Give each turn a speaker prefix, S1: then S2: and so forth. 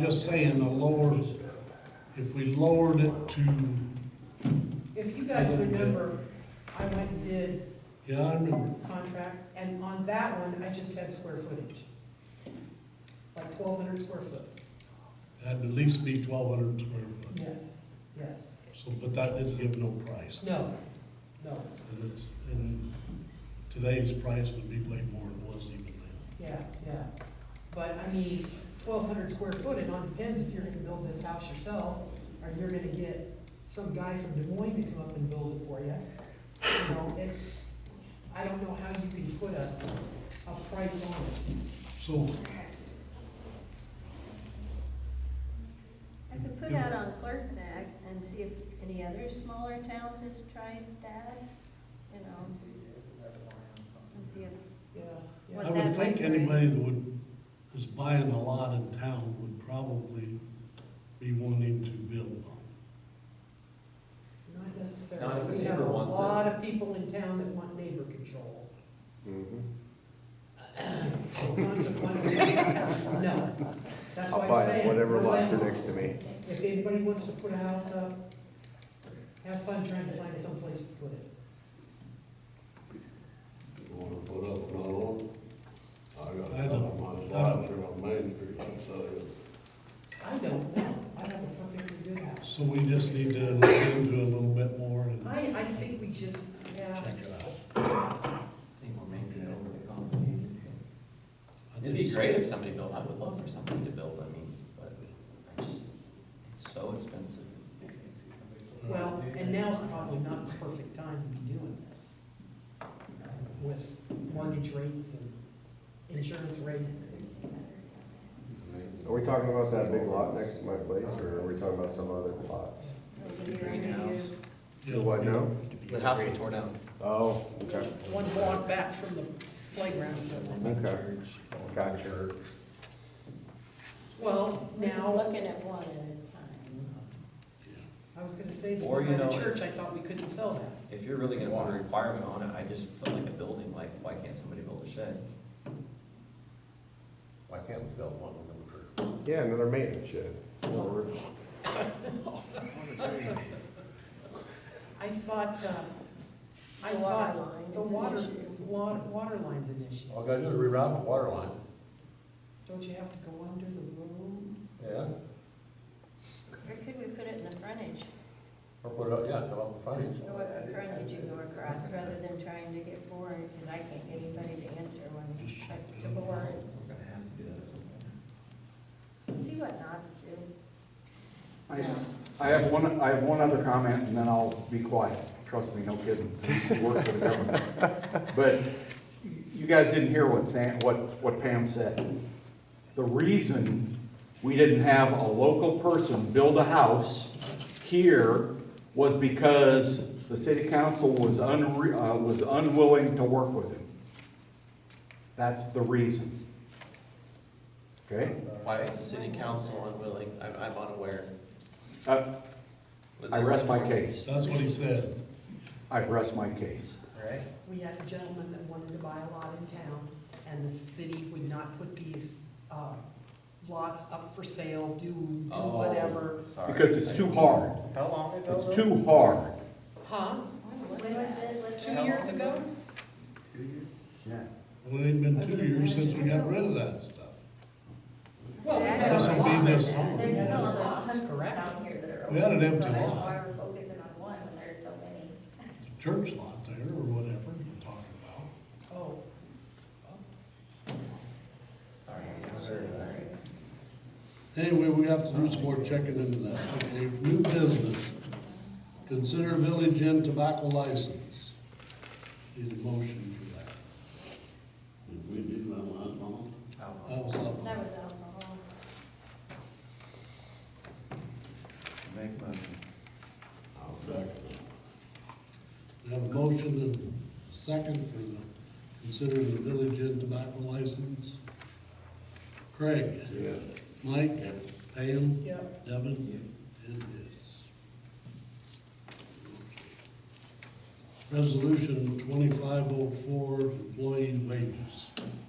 S1: just saying the lower, if we lowered it to,
S2: If you guys remember, I went and did
S1: yeah, I remember,
S2: contract, and on that one, I just had square footage. Like twelve hundred square foot.
S1: that'd at least be twelve hundred square foot.
S2: Yes, yes.
S1: So, but that didn't give no price.
S2: No, no,
S1: And it's, and today's price would be way more than it was even then.
S2: yeah, yeah. But I mean, twelve hundred square foot, it all depends if you're gonna build this house yourself, or you're gonna get some guy from Des Moines to come up and build it for you. You know, it, I don't know how you can put a, a price on it.
S1: So,
S3: I could put out on Clerk Neck and see if any other smaller towns has tried that, you know. And see if,
S2: Yeah,
S1: I
S2: yeah,
S3: What
S1: would
S3: that
S1: think
S3: might be.
S1: anybody that would, is buying a lot in town would probably be wanting to build on
S2: not
S4: Not if a
S2: necessarily. We
S4: neighbor
S2: have a
S4: wants it.
S2: lot of people in town that want neighbor control.
S5: Mm-hmm.
S2: So consequently, No, that's why
S5: I'll
S2: I'm
S5: buy
S2: saying.
S5: whatever
S2: we're
S5: lots are
S2: like,
S5: next to me.
S2: If anybody wants to put a house up, have fun trying to find someplace to put it.
S6: You wanna put up another one? I got
S1: I
S6: a
S1: don't-
S6: couple of my
S1: I don't-
S6: slides here on Main Street, I'm telling you.
S2: I don't know, I have a perfectly good
S1: it.
S2: house.
S1: So we just need to look into it a little bit more and
S2: I, I think we just, yeah,
S1: check it out.
S4: think we're making it overly complicated.
S1: I
S4: It'd
S1: think
S4: be
S1: so.
S4: great if somebody built, I would love for somebody to build, I mean, but I just, it's so expensive.
S2: well, and now's probably not the perfect time to be doing this. With mortgage rates and insurance rates.
S5: Are we talking about that big lot next to my place, or are we talking about some other lots?
S3: those of you who are new,
S1: Yeah.
S5: The what now?
S4: The house was torn down.
S5: Oh, okay,
S2: One block back from the playground.
S5: okay, gotcha.
S2: Well,
S3: we're just
S2: now,
S3: looking at one at a
S2: I was gonna say,
S4: Or,
S2: before
S4: you
S2: by the
S4: know-
S2: church, I thought we couldn't sell that.
S4: If you're really gonna put a requirement on it, I just put like a building, like, why can't somebody build a shed?
S6: Why can't we build one of them for?
S5: Yeah, another maintenance shed. Or-
S2: I thought, uh, I
S3: The water
S2: thought
S3: line
S2: the
S3: is an
S2: water,
S3: issue.
S2: water, water line's an issue.
S6: All I gotta do is reroute the water line.
S2: Don't you have to go under the road?
S6: Yeah,
S3: time. Or could we put it in the frontage,
S6: or put it up, yeah, go up the frontage.
S3: go up the frontage and go across, rather than trying to get bored, because I can't get anybody to answer when
S1: Just check
S3: I
S1: it
S3: to
S1: out.
S3: board.
S4: We're gonna have to do that at some point.
S3: See what knots do.
S7: I I have one, I have one other comment, and then I'll be quiet. Trust me, no kidding. I used to Work for the government. But you guys didn't hear what Sam, what, what Pam said. The reason we didn't have a local person build a house here was because the city council was unre, uh, was unwilling to work with him. That's the reason. Okay?
S4: Why is the city council unwilling? I'm, I'm unaware.
S7: Uh,
S4: Was
S7: I
S4: this-
S7: rest my case.
S1: That's what he said.
S7: I rest my case.
S4: Right?
S2: We had a gentleman that wanted to buy a lot in town, and the city would not put these, uh, lots up for sale, do, do
S4: Oh,
S2: whatever.
S4: Sorry.
S7: Because it's too hard.
S4: How long
S7: It's too hard.
S2: Huh?
S3: What's that?
S2: Two years ago?
S1: Well, it ain't been two years since we got rid of that stuff.
S2: Well, we had
S1: This
S2: a
S1: will be
S2: lot.
S1: this summer.
S2: We
S8: There's
S2: had a
S8: still a
S2: lot,
S8: lot
S2: correct.
S8: down here that are open.
S1: We had an empty
S8: so I don't know
S1: lot.
S8: why we're focusing on one when there's so many.
S1: The church lot there or whatever you're talking about.
S2: Oh,
S1: Anyway, we have to do some more checking into that. Okay, new business. Consider Village Inn tobacco license. Need a motion for that.
S6: Did we do that last month?
S1: That was up.
S3: That was alcohol.
S4: Make motion.
S6: I'll second it.
S1: We have a motion and a second for the, consider the Village Inn tobacco license. Craig?
S6: Yes.
S1: Mike? Pam?
S2: yeah.
S1: Devin? And yes. Resolution twenty-five oh four, employee wages.